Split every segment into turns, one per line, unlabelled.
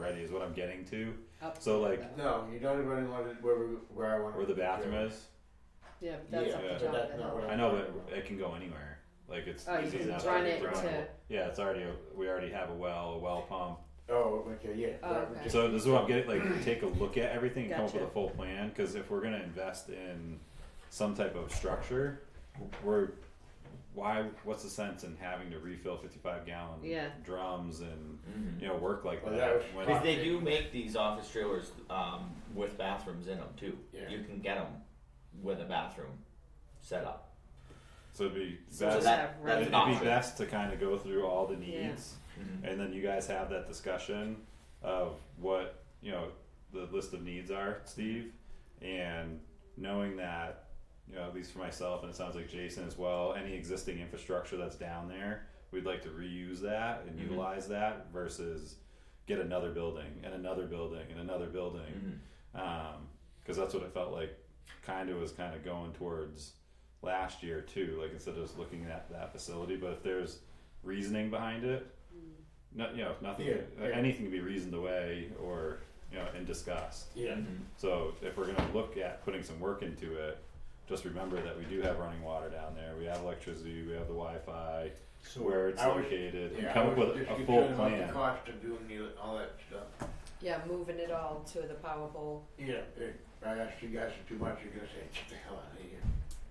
money is what I'm getting to.
Up
So,
to
like-
that.
No, you don't even want it where we, where I want
Where the bathroom is.
Yeah, but that's
Yeah,
up
but
to John
that's
to
not
help.
what
I know, but it can go anywhere. Like it's
Oh, you
easy
can
enough
run
to
it
run
to-
it. Yeah, it's already we already have a well, a well pump.
Oh, okay, yeah.
Oh,
that would
okay.
just-
So this is what I'm getting. Like, take a look at everything and come
Gotcha.
up with a full plan. Because if we're gonna invest in some type of structure, we're why? What's the sense in having to refill 55 gallon
Yeah.
drums and
Mhm.
you know work like
Well,
that?
that was-
when-
Because they do make these office trailers um, with bathrooms in them too.
Yeah.
You can get them with a bathroom set up.
so it'd be best.
So
Just
that-
have
that's
it'd
room.
an
be
option.
best to kind of go through all the
Yeah.
needs.
Mhm.
and then you guys have that discussion of what you know the list of needs are steve and knowing that you know at least for myself and it sounds like jason as well any existing infrastructure that's down there we'd like to reuse that and
Mhm.
utilize that versus get another building and another building and another building
Mhm.
because Um, that's what it felt like kind of was kind of going towards last year too like instead of just looking at that facility but if there's reasoning behind it no, you know, nothing,
Yeah,
uh,
yeah.
anything to be reasoned away or, you know, and discussed.
Yeah.
Mhm.
So if we're gonna look at putting some work into it, just remember that we do have running water down there, we have electricity, we have the Wi-Fi,
So
where it's
I was-
located, and
yeah,
come
I
up
was
with
just
a
concerned
full
about The
plan.
cost of doing the, all that stuff.
Yeah, moving it all to the power pole.
Yeah, it, I asked you guys for too much, you're gonna say, get the hell out of here.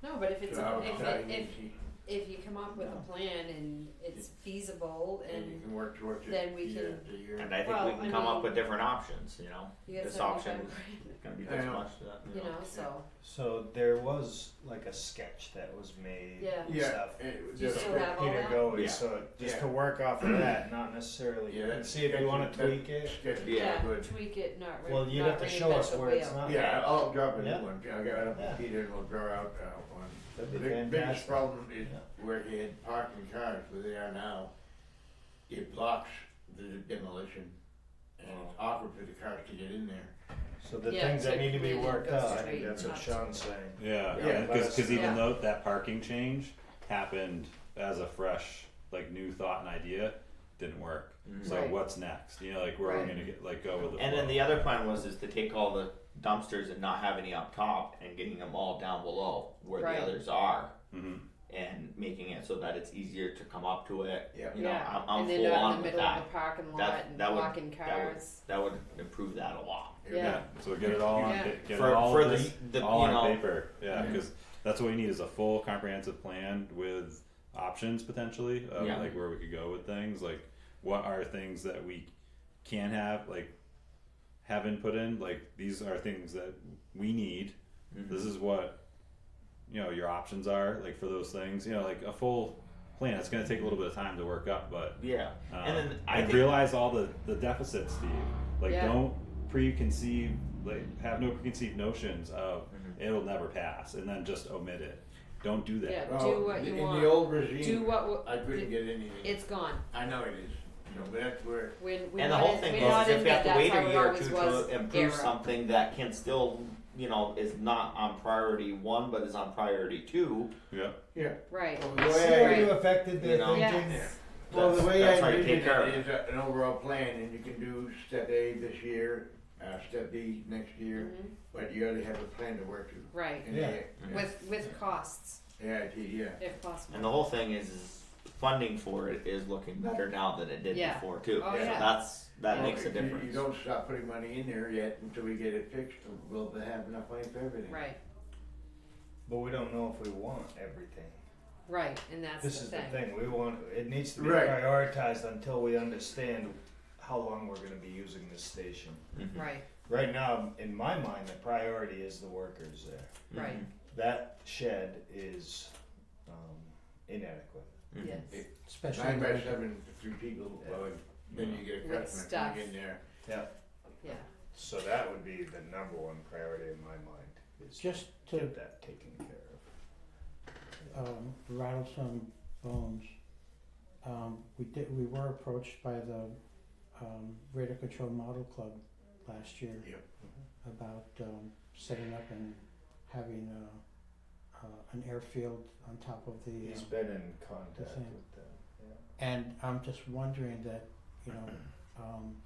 No, but if it's
So I was
if,
telling
it,
you,
if
see,
if you come up with a plan and it's feasible
And you
and
can work towards it.
then we
year
can-
after year.
And I think
Well,
we can
I
come
mean-
up with different options. You know,
you get
This
seventy-five
option.
grand,
gonna be
I
this
know.
much. That, you
you
know.
know, so
So there was like a sketch that was made
Yeah.
and
Yeah,
stuff.
it was
You
just-
still have all
Peter
that?
Goey,
Yeah.
so just
Yeah.
to work off of that, not necessarily.
Yeah,
and
that's
see if you want to
sketchy.
tweak it.
That's sketchy.
Yeah,
good.
tweak it, not re-
Well, you'd
not
have to show us
reinvent the
where it's
wheel.
not.
Yeah, I'll drop a
Yeah.
new one, I'll get it up
Yeah.
with Peter and we'll draw out uh, one.
That'd
The
be
big, biggest
fantastic.
problem is
Yeah.
where he had parking cars, where they are now, it blocks the demolition. And it's awkward for the cars to get in there.
So the
Yeah,
things
so
that need to
it
be
really
worked
goes
out. I
straight
think that's what
up.
Sean's saying.
Yeah,
Yeah, let
because
us
even
know.
though that parking change happened as a fresh, like new thought and idea, didn't work. So
Right.
what's next? You know, like where are
Right.
we gonna get like go with the
And then
flow?
the other plan was is to take all the dumpsters and not have any up top and getting them all down below where
Right.
the others are
Mhm.
and making it so that it's easier to come up to it.
Yeah.
You know,
yeah,
I'm, I'm
and then
full
you're
on
in the
with
middle
that.
of the parking lot
That-
and
that would-
blocking cars.
That would improve that a lot.
Yeah.
So get it all on
Yeah.
pa- get
For-
it all
for
of
the-
this
the-
all on
you know-
paper. Yeah,
Yeah.
because that's what we need is a full comprehensive plan with options potentially of
Yeah.
like where we could go with things. Like what are things that we can have like have input in? Like these are things that we need.
Mm-hmm.
This is what you know your options are like for those things. You know, like a full plan. It's going to take a little bit of time to work up, but
Yeah.
um,
and then I
and
think,
realize all the the deficits, Steve. Like
Yeah.
don't preconceive, like have no preconceived notions of
Mm-hmm.
it'll never pass, and then just omit it. Don't do that.
Yeah. Do
Well,
what you
in
want.
the old regime,
Do what wa-
I couldn't
it-
get anything.
It's gone.
I know it is. You know, but that's where
When we
and the
wanted-
whole thing
we
was
wanted
is if we have
that
to wait
that's how
a
it
year or
always
two
was
to improve
era.
something that can still, you know, is not on priority one but is on priority two.
Yeah.
yeah.
Right.
Well,
See
the way
where
I,
you affected their
You know.
thinking.
Yes.
well, the
That's-
way
that's how
I
you
envision
take care of
it is a, an overall plan, and you can do step A this year, uh, step B next year,
Mhm.
but you already have a plan to work to.
Right.
And
Yeah.
they-
With with costs,
Yeah, I see, yeah.
if possible.
And the whole thing is, is funding for it is looking better now than it did
Yeah.
before too.
Oh,
so
yeah.
that's that
Yeah.
makes a
You-
difference.
You don't stop putting money in there yet until we get it fixed, or we'll have enough money for everything.
Right.
But we don't know if we want everything.
Right. And that's
This
the
is
thing.
the thing. We want it needs to be
Right.
prioritized until we understand how long we're going to be using this station.
Right.
Right now, in my mind, the priority is the workers there.
Right.
That shed is um, inadequate.
Mhm.
Yes.
It-
Especially
Nine by seven, three people,
Yeah.
well, and then you get a
With
customer
stuff.
coming in there.
Yeah.
So that would be the number one priority in my mind is
Just
to
to
get that taken care of.
um, rattle some bones, um, we did. We were approached by the um, Radio Control Model Club last year
Yep.
about um, setting up and having a, uh, an airfield on top of the.
He's
uh,
been in contact
Same.
with them.
and I'm just wondering that you know um,